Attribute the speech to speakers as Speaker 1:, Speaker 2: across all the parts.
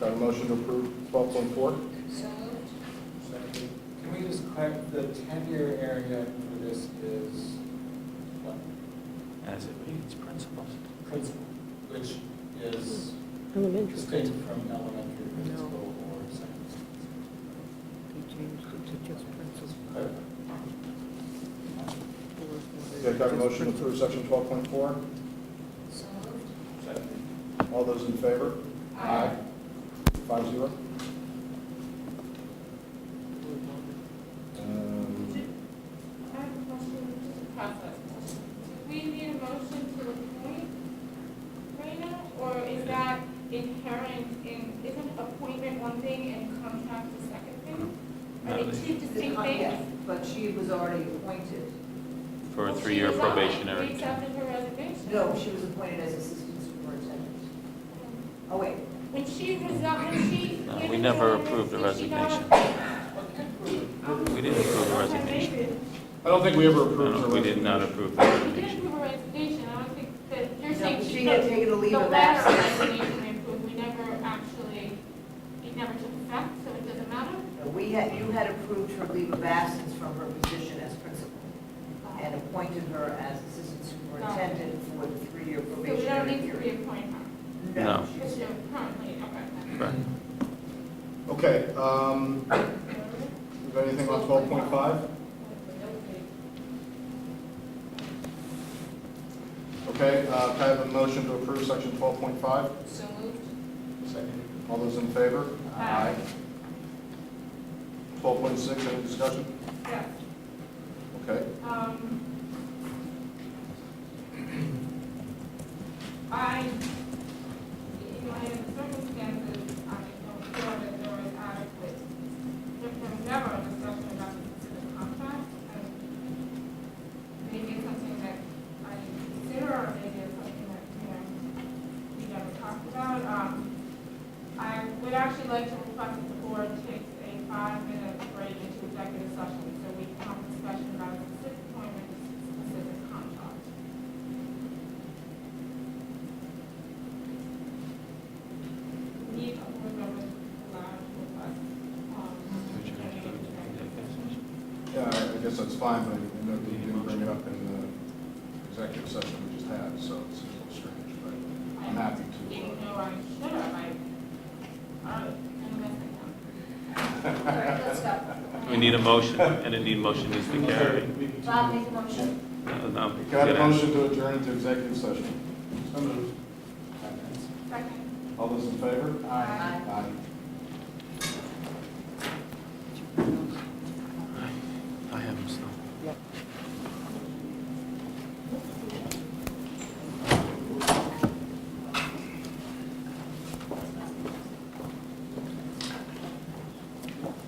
Speaker 1: Got a motion to approve twelve point four?
Speaker 2: So moved.
Speaker 3: Can we just clarify, the ten-year area for this is what?
Speaker 4: as it reads principles.
Speaker 3: Principal, which is
Speaker 5: Elementary.
Speaker 3: distinct from elementary principal or secondary.
Speaker 5: They changed it to just principal.
Speaker 3: Clarify.
Speaker 1: Got a motion to approve section twelve point four?
Speaker 2: So moved.
Speaker 1: All those in favor?
Speaker 2: Aye.
Speaker 1: Five zero.
Speaker 4: Um,
Speaker 6: I have a question, just a process. Do we need a motion to appoint right now, or is that inherent in, isn't appointment one thing and contract the second thing? Are
Speaker 4: No,
Speaker 6: they two distinct
Speaker 2: Yes,
Speaker 6: things?
Speaker 2: But she was already appointed.
Speaker 4: For a
Speaker 6: Well, she
Speaker 4: three-year
Speaker 6: resigned.
Speaker 4: probationary
Speaker 6: She
Speaker 4: term.
Speaker 6: accepted her resignation.
Speaker 2: No, she was appointed as assistant superintendent. Oh, wait.
Speaker 6: When she resigned, when she.
Speaker 4: No,
Speaker 6: when
Speaker 4: we
Speaker 6: her
Speaker 4: never
Speaker 6: notice,
Speaker 4: approved the
Speaker 6: did she not-
Speaker 4: We didn't approve the
Speaker 6: Okay,
Speaker 4: resignation.
Speaker 6: maybe.
Speaker 1: I don't think we ever approved
Speaker 4: No,
Speaker 1: her
Speaker 4: We did not
Speaker 1: resignation.
Speaker 4: approve the
Speaker 6: We did
Speaker 4: resignation.
Speaker 6: approve a resignation, I don't think that, you're
Speaker 2: No,
Speaker 6: saying
Speaker 2: She
Speaker 6: she
Speaker 2: had
Speaker 6: took
Speaker 2: taken a leave
Speaker 6: the
Speaker 2: of
Speaker 6: letter
Speaker 2: absence.
Speaker 6: resignation and approved, we never actually, it never took effect, so it doesn't matter?
Speaker 2: No, We had, you had approved her leave of absence from her position as principal and appointed her as assistant superintendent for the three-year
Speaker 6: So we don't
Speaker 2: probationary
Speaker 6: need to
Speaker 2: period.
Speaker 6: reappoint her,
Speaker 4: No.
Speaker 6: because you're currently, okay.
Speaker 4: Correct.
Speaker 1: Okay, um, you got anything on twelve point five? Okay, uh, can I have a motion to approve section twelve point five?
Speaker 2: So moved.
Speaker 1: Second. All those in favor?
Speaker 6: Aye.
Speaker 1: Twelve point six, any discussion?
Speaker 6: Yeah.
Speaker 1: Okay,
Speaker 6: Um, I, you know, in circumstances, I don't feel that there is adequate, there was never a discussion about the specific contract. and Maybe it's something that I didn't consider, or maybe it's something that, you know, we never talked about. Um, I would actually like to request that the board takes a five-minute break into executive session so we can have a discussion about a specific appointment, specific contract. Need a board member to allow to request, um, during executive session.
Speaker 1: yeah, I guess that's fine, but you know, you didn't bring it up in the executive session we just had, so it's a little strange, but I'm happy to. uh,
Speaker 6: Even though I should have, I, I, I'm messing up.
Speaker 2: All right, let's go.
Speaker 4: We need a motion, and a need motion needs to carry.
Speaker 2: Bob, make a motion.
Speaker 4: No, no, we
Speaker 1: Got a
Speaker 4: gotta-
Speaker 1: motion to adjourn into executive session.
Speaker 6: Second.
Speaker 1: All those in favor?
Speaker 2: Aye.
Speaker 1: Aye.
Speaker 4: I have them still.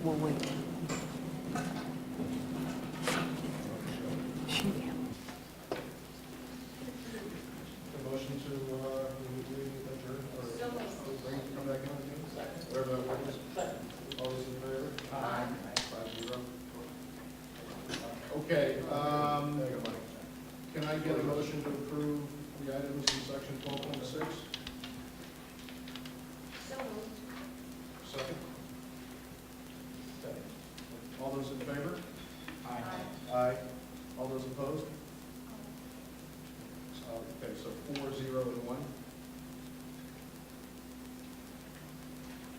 Speaker 5: Well, wait. She
Speaker 3: The motion to, uh, adjourn or bring it come back in, second, whatever that word is. All those in favor? Aye. Five zero.
Speaker 1: Okay, um, can I get a motion to approve the items in section twelve point six?
Speaker 2: So moved.
Speaker 1: Second? All those in favor? Aye. All those opposed? So, Okay, so four, zero, and one.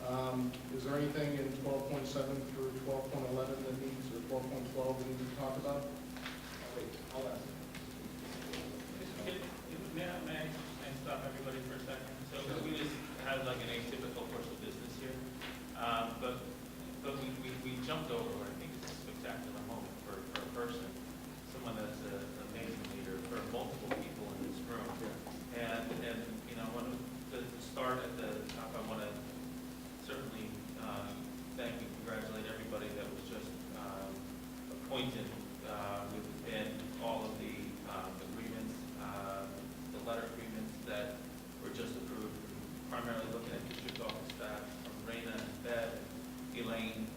Speaker 1: Um, Is there anything in twelve point seven through twelve point eleven that needs, or twelve point twelve we need to talk about?
Speaker 3: Wait, I'll ask.
Speaker 7: May I, may I may I stop everybody for a second? So we just had like an atypical course of business here, Um, but, but we, we we jumped over, what I think it's a spectacular moment for, for a person, someone uh, that's a- an amazing leader, for multiple people in this room. And, and, you know, I want to, to start at the top, I want to certainly um, thank and congratulate everybody that was just um, appointed uh, within all of the um, agreements, uh, the letter agreements that were just approved, primarily looking at district office staff, from Raina and Bev, Elaine, uh, uh, uh,